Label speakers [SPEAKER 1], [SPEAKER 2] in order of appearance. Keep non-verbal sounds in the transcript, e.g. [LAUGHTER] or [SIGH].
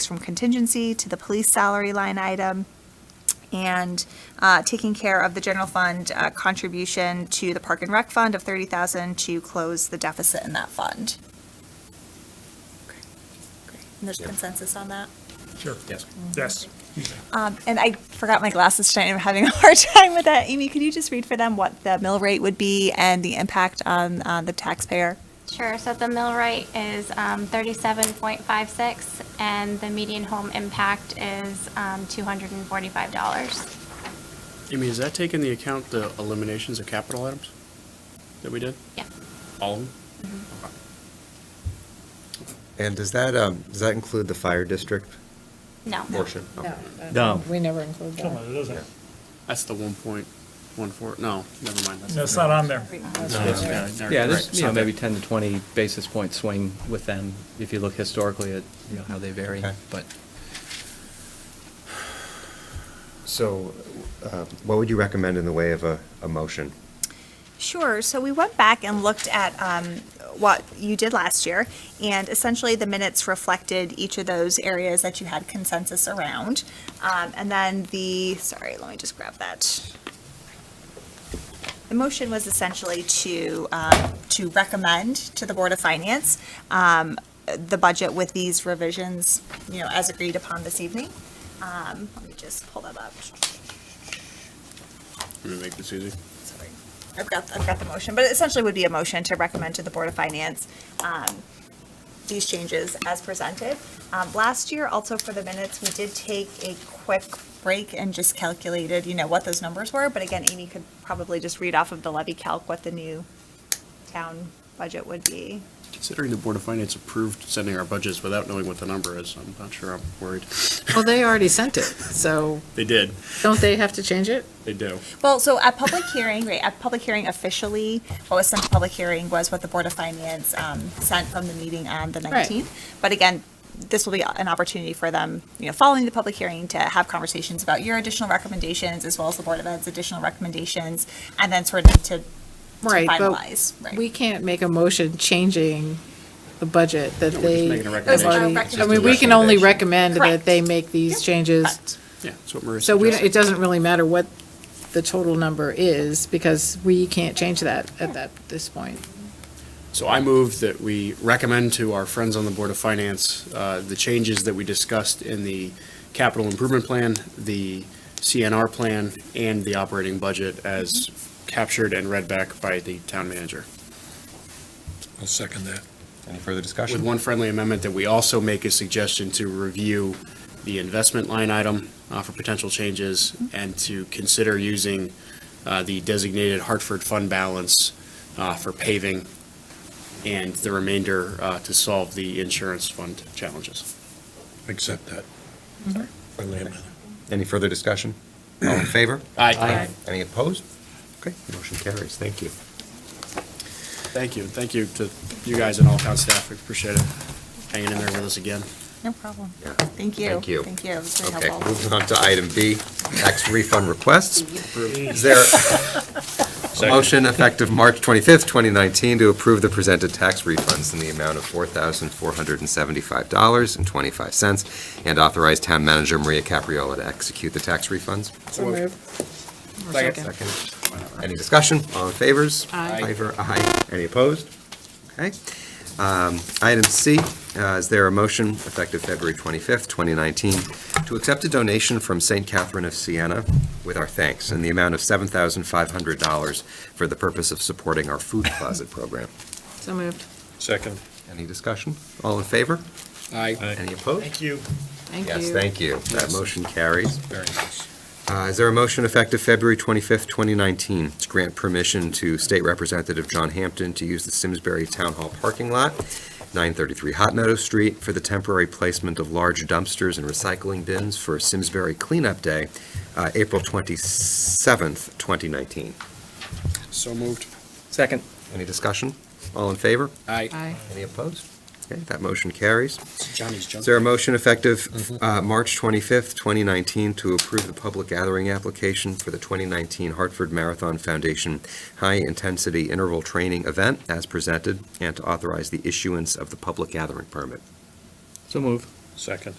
[SPEAKER 1] from contingency to the police salary line item, and uh, taking care of the general fund uh, contribution to the Park and Rec Fund of 30,000 to close the deficit in that fund. And there's
[SPEAKER 2] Yep.
[SPEAKER 1] consensus on that?
[SPEAKER 3] Sure.
[SPEAKER 2] Yes.
[SPEAKER 3] Yes.
[SPEAKER 1] Um, And I forgot my glasses tonight, I'm having a hard [LAUGHS] time with that. Amy, could you just read for them what the mill rate would be and the impact on uh, the taxpayer?
[SPEAKER 4] Sure, so the mill rate is um, 37.56, and the median home impact is um, $245.
[SPEAKER 5] Amy, does that take into account the eliminations of capital items that we did?
[SPEAKER 4] Yeah,
[SPEAKER 5] All of them?
[SPEAKER 2] And does that, um, does that include the fire district
[SPEAKER 4] no.
[SPEAKER 2] portion?
[SPEAKER 6] No.
[SPEAKER 7] No.
[SPEAKER 6] We never include
[SPEAKER 3] Come on,
[SPEAKER 6] that.
[SPEAKER 3] it doesn't,
[SPEAKER 5] That's the one point one four, no, never mind.
[SPEAKER 3] no, it's not on there.
[SPEAKER 7] Yeah,
[SPEAKER 5] there's
[SPEAKER 7] there's, you know, maybe 10 to 20 basis point swing with them, if you look historically at, you know, how they vary,
[SPEAKER 2] Okay.
[SPEAKER 7] but.
[SPEAKER 2] So uh, what would you recommend in the way of a, a motion?
[SPEAKER 1] Sure. So we went back and looked at um, what you did last year, and essentially the minutes reflected each of those areas that you had consensus around. Um, and then the, sorry, let me just grab that. The motion was essentially to, um, to recommend to the Board of Finance um, the budget with these revisions, you know, as agreed upon this evening. Um, Let me just pull them up.
[SPEAKER 5] Let me make this easy.
[SPEAKER 1] Sorry, I've got, I've got the motion, but it essentially would be a motion to recommend to the Board of Finance um, these changes as presented. Um, Last year, also for the minutes, we did take a quick break and just calculated, you know, what those numbers were. But again, Amy could probably just read off of the levy calc what the new town budget would be.
[SPEAKER 5] Considering the Board of Finance approved sending our budgets without knowing what the number is, I'm not sure I'm worried.
[SPEAKER 6] Well, they already sent it, so
[SPEAKER 5] They did,
[SPEAKER 6] don't they have to change it?
[SPEAKER 5] they do.
[SPEAKER 1] Well, so at public hearing, right, at public hearing officially, what was sent to public hearing was what the Board of Finance um, sent from the meeting on the
[SPEAKER 6] Right.
[SPEAKER 1] 19th. But again, this will be an opportunity for them, you know, following the public hearing to have conversations about your additional recommendations as well as the Board of Ed's additional recommendations and then sort of to
[SPEAKER 6] Right, but
[SPEAKER 1] finalize. right.
[SPEAKER 6] we can't make a motion changing the budget that
[SPEAKER 5] No, we're just
[SPEAKER 6] they.
[SPEAKER 5] making a
[SPEAKER 6] have
[SPEAKER 5] recommendation.
[SPEAKER 6] already-
[SPEAKER 1] It's just
[SPEAKER 6] I
[SPEAKER 1] a
[SPEAKER 6] mean, we can only
[SPEAKER 1] recommendation.
[SPEAKER 6] recommend that they
[SPEAKER 1] Correct.
[SPEAKER 6] make these
[SPEAKER 1] Yep.
[SPEAKER 6] changes.
[SPEAKER 1] Correct.
[SPEAKER 5] Yeah, that's what Marissa
[SPEAKER 6] So we, don't- it
[SPEAKER 5] suggested.
[SPEAKER 6] doesn't really matter what the total number is, because we can't change that at that, this point.
[SPEAKER 5] So I move that we recommend to our friends on the Board of Finance uh, the changes that we discussed in the capital improvement plan, the CNR plan, and the operating budget as captured and read back by the town manager.
[SPEAKER 3] I'll second that.
[SPEAKER 2] Any further
[SPEAKER 5] With
[SPEAKER 2] discussion?
[SPEAKER 5] one friendly amendment that we also make a suggestion to review the investment line item uh, for potential changes and to consider using uh, the designated Hartford fund balance uh, for paving and the remainder uh, to solve the insurance fund challenges.
[SPEAKER 3] Accept that. Friendly amendment.
[SPEAKER 2] Any further discussion? All in favor?
[SPEAKER 5] Aye.
[SPEAKER 2] Any opposed? Okay, motion carries. Thank you.
[SPEAKER 5] Thank you. Thank you to you guys and all town staff. We appreciate it. Hanging in there with us again.
[SPEAKER 1] No problem.
[SPEAKER 2] Yeah.
[SPEAKER 1] Thank you.
[SPEAKER 2] Thank you.
[SPEAKER 1] Thank you. It was very
[SPEAKER 2] Okay,
[SPEAKER 1] helpful.
[SPEAKER 2] moving on to item B, tax refund requests. Is there a motion effective March 25th, 2019, to approve the presented tax refunds in the amount of $4,475.25 and authorize Town Manager Maria Capriola to execute the tax refunds?
[SPEAKER 6] So moved. Or Second.
[SPEAKER 2] Second. Any discussion? All in favors?
[SPEAKER 6] Aye.
[SPEAKER 2] Favor, aye. Any opposed? Okay. Um, Item C, uh, is there a motion effective February 25th, 2019, to accept a donation from St. Catherine of Siena with our thanks in the amount of $7,500 for the purpose of supporting our food closet program?
[SPEAKER 6] So moved.
[SPEAKER 3] Second.
[SPEAKER 2] Any discussion? All in favor?
[SPEAKER 3] Aye.
[SPEAKER 2] Any opposed?
[SPEAKER 5] you.
[SPEAKER 6] Thank you.
[SPEAKER 2] Yes, thank you. That
[SPEAKER 5] Yes.
[SPEAKER 2] motion carries.
[SPEAKER 5] Very nice.
[SPEAKER 2] Uh, Is there a motion effective February 25th, 2019, to grant permission to State Representative John Hampton to use the Simsbury Town Hall parking lot, 933 Hot Meadow Street, for the temporary placement of large dumpsters and recycling bins for Simsbury Cleanup Day, uh, April 27th, 2019?
[SPEAKER 5] So moved.
[SPEAKER 7] Second.
[SPEAKER 2] Any discussion? All in favor?
[SPEAKER 5] Aye.
[SPEAKER 6] Aye.
[SPEAKER 2] Any opposed? Okay, that motion carries.
[SPEAKER 5] Johnny's jumping.
[SPEAKER 2] Is there a motion effective uh, March 25th, 2019, to approve the public gathering application for the 2019 Hartford Marathon Foundation High Intensity Interval Training Event as presented, and to authorize the issuance of the public gathering permit?
[SPEAKER 7] So move.
[SPEAKER 3] Second.